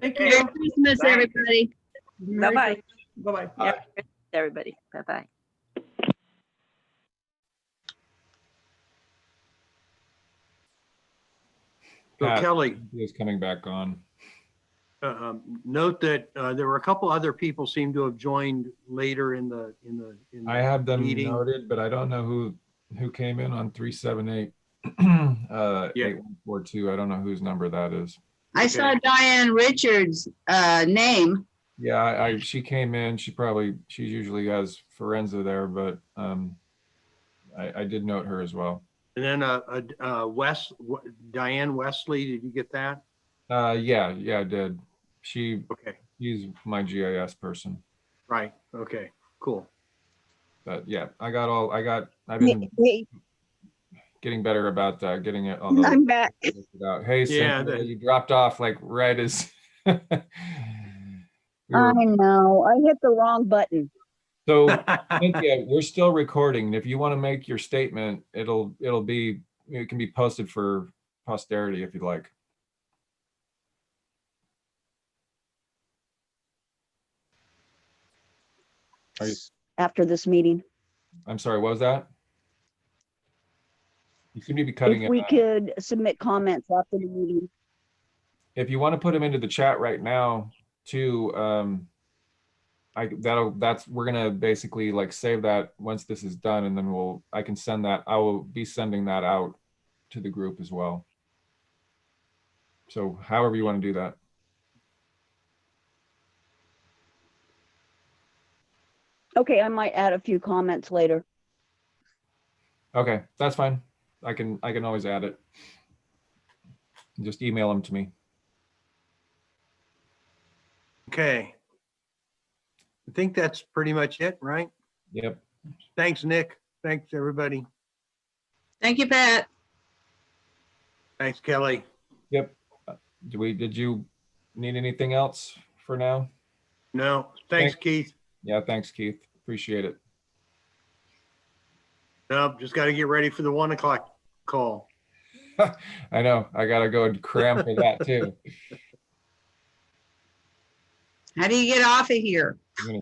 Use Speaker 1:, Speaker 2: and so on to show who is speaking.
Speaker 1: Thank
Speaker 2: Merry
Speaker 1: you.
Speaker 2: Christmas,
Speaker 1: Bye.
Speaker 2: everybody.
Speaker 1: Merry
Speaker 3: Bye-bye.
Speaker 1: Christmas. Bye-bye.
Speaker 3: Merry Christmas, Everybody, bye-bye.
Speaker 4: So
Speaker 5: Pat
Speaker 4: Kelly,
Speaker 5: is coming back on.
Speaker 4: uh, um, note that uh, there were a couple other people seem to have joined later in the, in the. in the-
Speaker 5: I have them
Speaker 4: Meeting.
Speaker 5: noted, but I don't know who, who came in on three, seven, eight. Uh,
Speaker 4: Yeah.
Speaker 5: eight, one, four, two. I don't know whose number that is.
Speaker 3: I saw Diane Richards' uh, name.
Speaker 5: Yeah, I, I- she came in, she probably, she usually has Forenza there, but, um, I, I did note her as well.
Speaker 4: And then uh, uh, uh, Wes, Diane Wesley, did you get that?
Speaker 5: Uh, yeah, yeah, I did. She,
Speaker 4: Okay,
Speaker 5: she's my GIS person,
Speaker 4: right, okay, cool.
Speaker 5: but yeah, I got all, I got, I've been
Speaker 6: Hey,
Speaker 5: getting better about, uh, getting it on the.
Speaker 6: I'm back.
Speaker 5: worked it out. Hey,
Speaker 4: Yeah,
Speaker 5: Cynthia,
Speaker 4: that-
Speaker 5: you dropped off like right as. We
Speaker 6: I
Speaker 5: were-
Speaker 6: Uh, know, I hit the wrong button.
Speaker 5: So Cynthia, we're still recording. and If you want to make your statement, it'll, it'll be, it can be posted for posterity if you'd like.
Speaker 6: After this meeting,
Speaker 5: I'm sorry, what was that? You seem to be cutting
Speaker 6: if
Speaker 5: it.
Speaker 6: we
Speaker 5: out.
Speaker 6: could submit comments after the meeting.
Speaker 5: If you want to put them into the chat right now too, um, I, that'll, that's, we're gonna basically like save that once this is done and then we'll, I can send that, I will be sending that out to the group as well. So however you want to do that.
Speaker 6: Okay, I might add a few comments later.
Speaker 5: Okay, that's fine. I can, I can always add it. Just email them to me.
Speaker 4: Okay. I think that's pretty much it, right?
Speaker 5: Yep.
Speaker 4: Thanks, Nick. Thanks, everybody.
Speaker 2: Thank you, Pat.
Speaker 4: Thanks, Kelly.
Speaker 5: Do we, did you need anything else for now?
Speaker 4: No, thanks,
Speaker 5: Thank-
Speaker 4: Keith.
Speaker 5: Yeah, thanks Keith. Appreciate it.
Speaker 4: No, just got to get ready for the one o'clock call.
Speaker 5: I know, I gotta go and cram for that too.
Speaker 2: How do you get off of here?
Speaker 5: I'm gonna